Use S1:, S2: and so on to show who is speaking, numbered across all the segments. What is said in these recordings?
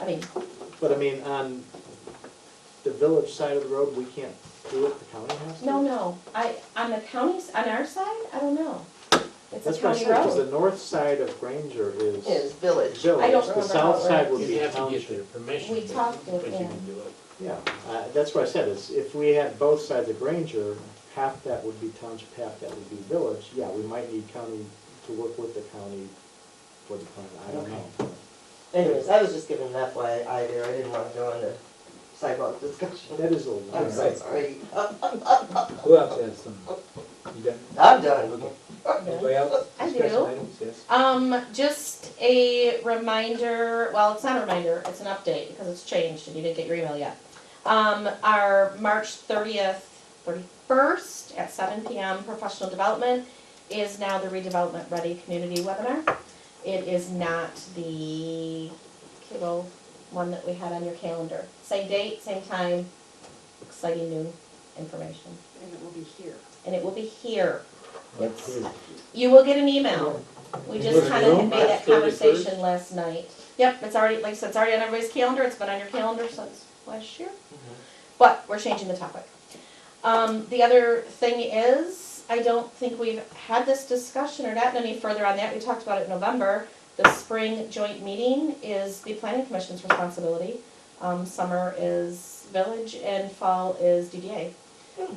S1: I mean,
S2: But I mean, on the village side of the road, we can't do it, the county has to?
S1: no, no, I, on the county's, on our side, I don't know. It's a
S2: That's what
S1: county
S2: I said, because the
S1: road.
S2: north side of Granger is
S3: is
S2: village,
S3: village.
S1: I don't
S2: the
S1: remember how
S2: south
S1: it
S2: side would
S4: You'd
S2: be
S4: have to get their
S2: township.
S4: permission.
S1: We talked
S4: but
S1: with
S4: you
S1: them.
S4: can do it.
S2: Yeah, uh, that's what I said, is if we had both sides of Granger, half that would be township, half that would be village, yeah, we might need county to work with the county for the plan, I don't know.
S3: Anyways, I was just giving that why I there, I didn't wanna go into sidewalk discussion.
S2: That is a little.
S3: I'm so sorry,
S5: Who else has some? You got
S3: I'm done.
S5: anybody else?
S1: I
S5: Discussion
S1: do.
S5: items, yes.
S1: Um, just a reminder, well, it's not a reminder, it's an update because it's changed and you didn't get your email yet. Um, our March thirtieth, thirty-first at seven PM professional development is now the redevelopment ready community webinar. It is not the kiddo one that we had on your calendar. Same date, same time, exciting new information.
S6: And it will be here.
S1: And it will be here.
S5: Let's see.
S1: You will get an email. We
S5: Was
S1: just
S5: it
S1: kind of
S5: Rome?
S1: made that
S4: March 31st?
S1: conversation last night. Yep, it's already, like I said, it's already on everybody's calendar, it's been on your calendar since last year. But we're changing the topic. Um, the other thing is, I don't think we've had this discussion or gotten any further on that, we talked about it in November. The spring joint meeting is the planning commission's responsibility. Um, summer is village and fall is DDA.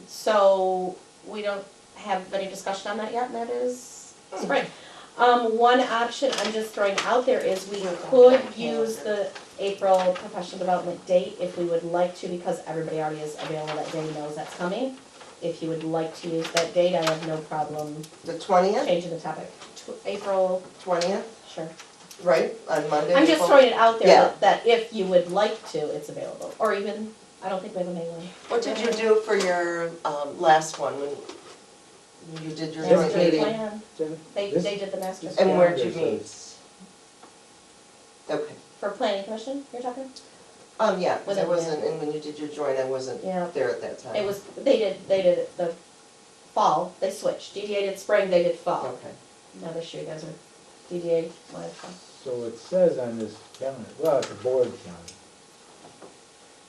S1: So we don't have any discussion on that yet, and that is spring. Um, one option I'm just throwing out there is we could use the April professional development date if we would like to, because everybody already is available that day, knows that's coming. If you would like to use that date, I have no problem
S3: The twentieth,
S1: changing the topic. Tw- April,
S3: twentieth,
S1: sure.
S3: right, on Monday.
S1: I'm just
S3: April-
S1: throwing it out there
S3: Yeah.
S1: that, that if you would like to, it's available, or even, I don't think we have a May one.
S3: What did you do for your, um, last one, when you did your joint
S1: Master
S3: meeting?
S1: plan, they,
S5: This-
S1: they did the master
S5: this-
S1: plan
S3: And where'd you
S5: Yeah,
S3: meet?
S5: there's
S3: Okay,
S1: for planning commission, you're talking?
S3: um, yeah, 'cause I
S1: Whatever, yeah.
S3: wasn't, and when you did your joint, I wasn't
S1: Yeah.
S3: there at that time.
S1: It was, they did, they did it the fall, they switched, DDA did spring, they did fall.
S3: Okay.
S1: Now this year, you guys are DDA, wanted fall.
S5: So it says on this calendar, well, it's a board calendar.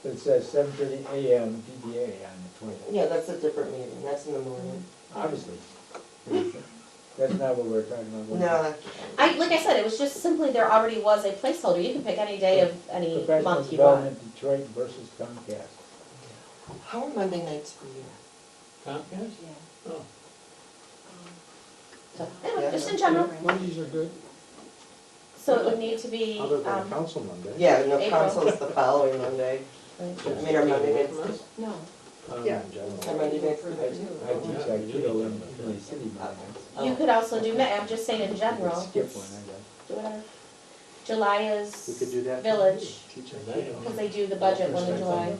S5: It says seven thirty AM DDA on the twentieth,
S3: Yeah, that's a different meeting, that's in the morning.
S5: obviously. That's not what we're talking about.
S3: No, that-
S1: I, like I said, it was just simply there already was a placeholder, you can pick any day of any
S5: Professional
S1: month you want.
S5: Development Detroit versus Comcast.
S3: how are Monday nights for you?
S4: Comcast? Oh.
S1: So, anyway, just in general,
S7: Mondays are good.
S1: so it would need to be,
S2: Other than
S1: um,
S2: council Monday.
S3: Yeah, no,
S1: April.
S3: council's the following Monday. I mean, our Monday nights,
S6: No.
S4: Um,
S2: Yeah, in general.
S3: our Monday nights.
S5: I I teach Aikido in Philly City, Monday.
S1: you could also do, May. I'm just saying in general, do
S5: Skip one, I guess.
S1: whatever. July
S2: We could
S1: is,
S2: do that.
S1: Village.
S2: Teach
S4: And
S2: it.
S4: they don't-
S1: because they do the budget one in
S4: First
S1: July,
S4: thing.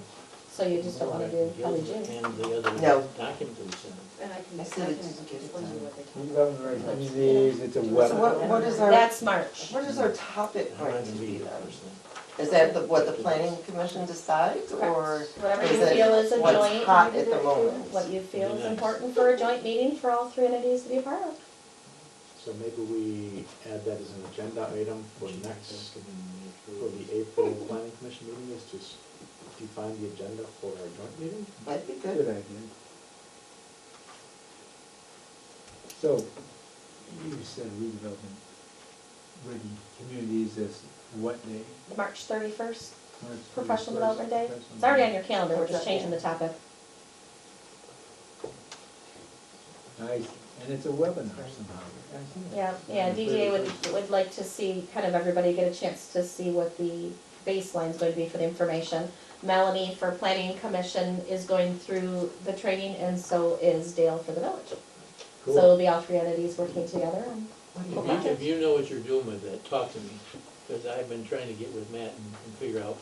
S1: so you just don't wanna do probably June.
S4: And the other
S3: No.
S4: document we sent.
S6: And I can,
S3: I
S6: I
S3: said
S6: can
S3: it's good.
S6: explain you what they can.
S5: Development communities, it's a
S3: So what,
S5: weapon.
S3: what is our,
S1: That's March.
S3: what is our topic
S4: I'm not
S3: going
S4: gonna
S3: to
S4: be
S3: be
S4: the
S3: then?
S4: first thing.
S3: Is that the, what the planning commission decides, or
S1: Whatever
S3: is
S1: you feel is
S3: it
S1: a
S3: what's
S1: joint,
S3: hot at the moment?
S1: what you feel is
S4: Yeah.
S1: important for a joint meeting for all three entities to be a part of.
S2: So maybe we add that as an agenda item for next, for the April planning commission meeting is to s- define the agenda for our joint meeting?
S3: That'd be
S5: Good
S3: good.
S5: idea. So, you said redevelopment, ready communities is what day?
S1: March thirty-first,
S5: March
S1: professional
S5: 31st,
S1: development day.
S5: professional
S1: It's already on
S5: development.
S1: your calendar, we're just changing the topic.
S5: Nice, and it's a webinar somehow.
S1: Yeah, yeah, DDA would, would like to see, kind of everybody get a chance to see what the baseline's going to be for the information. Melanie for Planning Commission is going through the training and so is Dale for the village. So
S5: Cool.
S1: it'll be all three entities working together and
S4: If you- If you know what you're doing with that, talk to me, because I've been trying to get with Matt and and figure out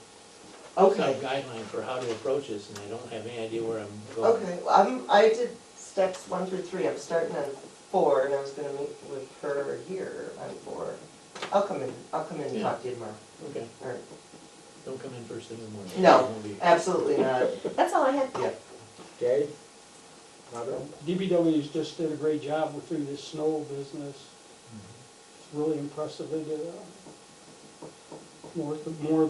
S4: some
S3: Okay,
S4: guideline for how to approach this, and I don't have any idea where I'm going.
S3: okay, well, I'm, I did steps one through three, I'm starting on four, and I was gonna meet with her here on four. I'll come in, I'll come in and talk to you tomorrow,
S4: Okay,
S3: or,
S4: don't come in first thing in the morning.
S3: No.
S4: I won't be-
S3: absolutely not,
S1: that's all I had.
S3: yeah.
S5: Okay? Robert?
S7: DBW's just did a great job with through this snow business. It's really impressive they did. uh, More, more